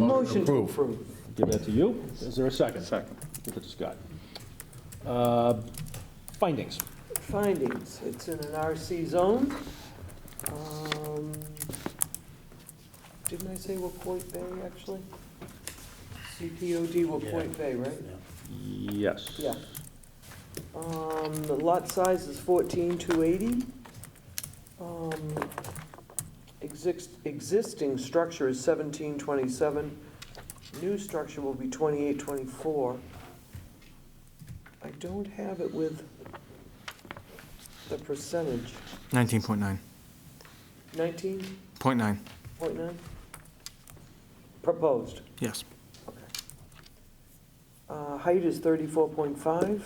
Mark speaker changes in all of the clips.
Speaker 1: Motion to
Speaker 2: Approve.
Speaker 1: approve.
Speaker 3: Give that to you. Is there a second?
Speaker 4: Second.
Speaker 3: Give it to Scott. Uh, Findings.
Speaker 1: Findings, it's in an RC zone. Um, Didn't I say Wapoit Bay, actually? CPOD Wapoit Bay, right?
Speaker 3: Yes.
Speaker 1: Yeah. Um, the lot size is fourteen two eighty. Um, exist, existing structure is seventeen twenty-seven. New structure will be twenty-eight twenty-four. I don't have it with the percentage,
Speaker 5: 19.9,
Speaker 1: nineteen
Speaker 5: point nine,
Speaker 1: point nine? Proposed.
Speaker 5: yes.
Speaker 1: Uh, Height is 34.5. I think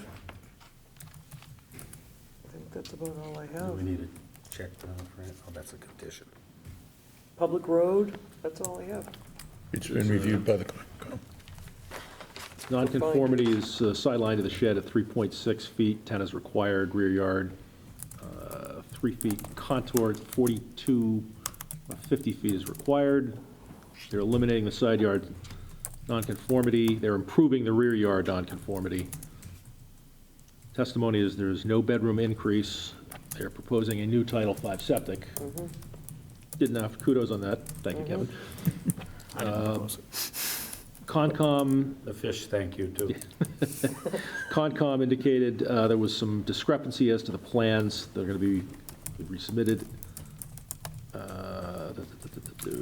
Speaker 1: that's about all I
Speaker 6: Do
Speaker 1: have.
Speaker 6: we need to check the print? Oh, that's a condition.
Speaker 1: Public road, that's all I have.
Speaker 2: It's been reviewed by the
Speaker 3: Nonconformity is uh, sideline to the shed at 3.6 feet, 10 is required, rear yard, uh, 3 feet contour, 42, uh, 50 feet is required. They're eliminating the side yard nonconformity, they're improving the rear yard nonconformity. Testimony is there is no bedroom increase, they're proposing a new Title V septic.
Speaker 5: Mm-hmm.
Speaker 3: Didn't have, kudos on that, thank you, Kevin. Uh,
Speaker 5: I didn't propose it.
Speaker 3: Concom
Speaker 6: The fish, thank you, too.
Speaker 3: Concom indicated uh, there was some discrepancy as to the plans that are going to be resubmitted. Uh,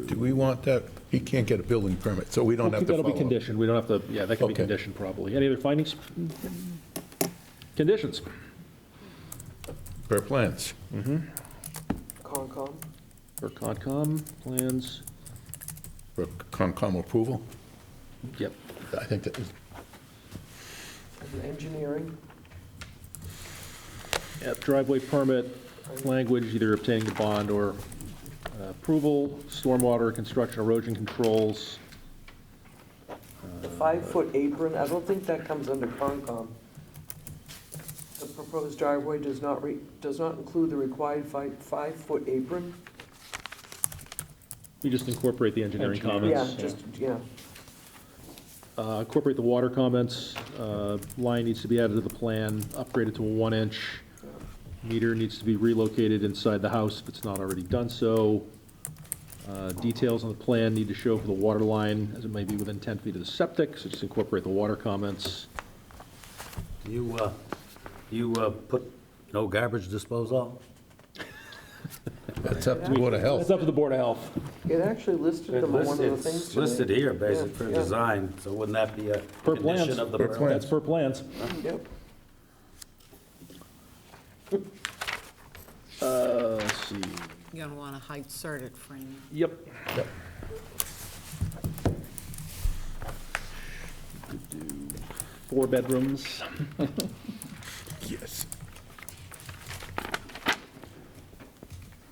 Speaker 2: Do we want that? He can't get a building permit, so we don't have to follow.
Speaker 3: That'll be conditioned, we don't have to, yeah, that can be
Speaker 2: Okay.
Speaker 3: conditioned probably. Any other findings? Conditions?
Speaker 2: Per plans.
Speaker 1: Concom,
Speaker 3: For Concom, plans,
Speaker 2: For Concom approval?
Speaker 3: yep.
Speaker 2: I think that is
Speaker 1: and engineering,
Speaker 3: Yep, Driveway permit, language either obtaining the bond or uh, approval, stormwater, construction erosion controls,
Speaker 1: the five-foot apron, I don't think that comes under Concom. The proposed driveway does not re, does not include the required five, five-foot apron.
Speaker 3: we just incorporate the engineering comments.
Speaker 1: Yeah, just, yeah.
Speaker 3: Uh, Incorporate the water comments. Uh, Line needs to be added to the plan, upgraded to a one-inch. Meter needs to be relocated inside the house if it's not already done so. Uh, Details on the plan need to show for the water line, as it may be within 10 feet of the septic, so just incorporate the water comments.
Speaker 6: You, uh, you uh, put no garbage disposal?
Speaker 2: That's up to Board of Health.
Speaker 3: That's up to the Board of Health.
Speaker 1: It actually listed them on one of the
Speaker 6: It's
Speaker 1: things today.
Speaker 6: listed here, basic for
Speaker 1: Yeah, yeah.
Speaker 6: design, so wouldn't that be a
Speaker 3: Per plans.
Speaker 6: condition of the
Speaker 2: Per
Speaker 6: permit?
Speaker 2: plan.
Speaker 3: That's per plans.
Speaker 1: Yep.
Speaker 3: Uh, Let's see.
Speaker 7: You're gonna wanna height cert it, Franny.
Speaker 3: Yep. Four bedrooms.
Speaker 2: Yes.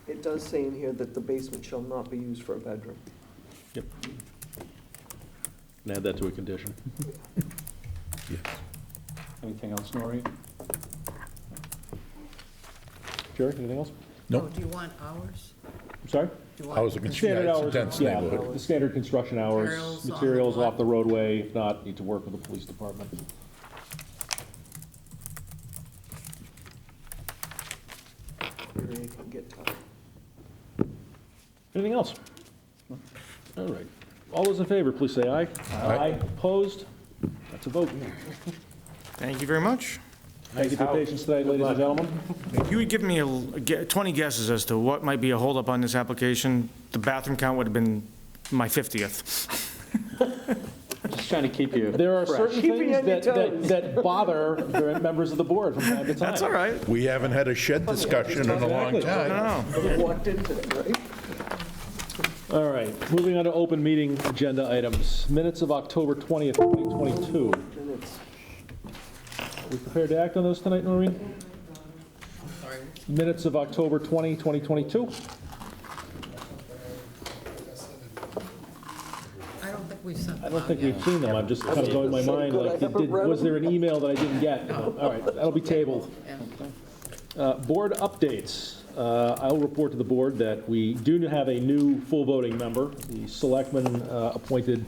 Speaker 1: It does say in here that the basement shall not be used for a bedroom.
Speaker 3: Yep. And add that to a condition.
Speaker 4: Anything else, Noreen?
Speaker 3: Jerry, anything else?
Speaker 7: Oh,
Speaker 2: Nope.
Speaker 7: do you want hours?
Speaker 3: I'm sorry?
Speaker 7: Do you want
Speaker 2: Hours of construction,
Speaker 3: Standard
Speaker 2: yeah,
Speaker 3: hours.
Speaker 2: it's a dense
Speaker 3: yeah,
Speaker 2: neighborhood.
Speaker 3: The standard construction hours,
Speaker 7: Materials on the
Speaker 3: materials off
Speaker 7: lot.
Speaker 3: the roadway, if not, need to work with the police department.
Speaker 1: It can get uh, tough.
Speaker 3: Anything else? All right. All those in favor, please say aye. Aye. Opposed? That's a vote.
Speaker 5: Thank you very much.
Speaker 3: Thank you for your patience today, ladies and gentlemen.
Speaker 5: If you had given me a l- ge- 20 guesses as to what might be a holdup on this application, the bathroom count would have been my 50th.
Speaker 4: Just trying to keep you.
Speaker 3: There are certain
Speaker 1: Keep me
Speaker 3: things
Speaker 1: on your
Speaker 3: that, that-
Speaker 1: toes.
Speaker 3: that bother the members of the board from time to time.
Speaker 5: That's all right.
Speaker 2: We haven't had a shed discussion in a long
Speaker 3: Exactly.
Speaker 2: time.
Speaker 5: No.
Speaker 1: Walked into it, right?
Speaker 3: All right, moving on to open meeting agenda items. Minutes of October 20th, 2022.
Speaker 1: And it's
Speaker 3: We prepared to act on those tonight, Noreen? Minutes of October 20, 2022?
Speaker 7: I don't think we've sent
Speaker 3: I
Speaker 7: them
Speaker 3: don't
Speaker 7: out
Speaker 3: think
Speaker 7: yet.
Speaker 3: we've seen them, I'm just kind of going in my mind, like, did- did- was there an email that I didn't get? All right, that'll be tabled. Uh, Board updates. Uh, I'll report to the board that we do have a new full voting member. The selectman uh, appointed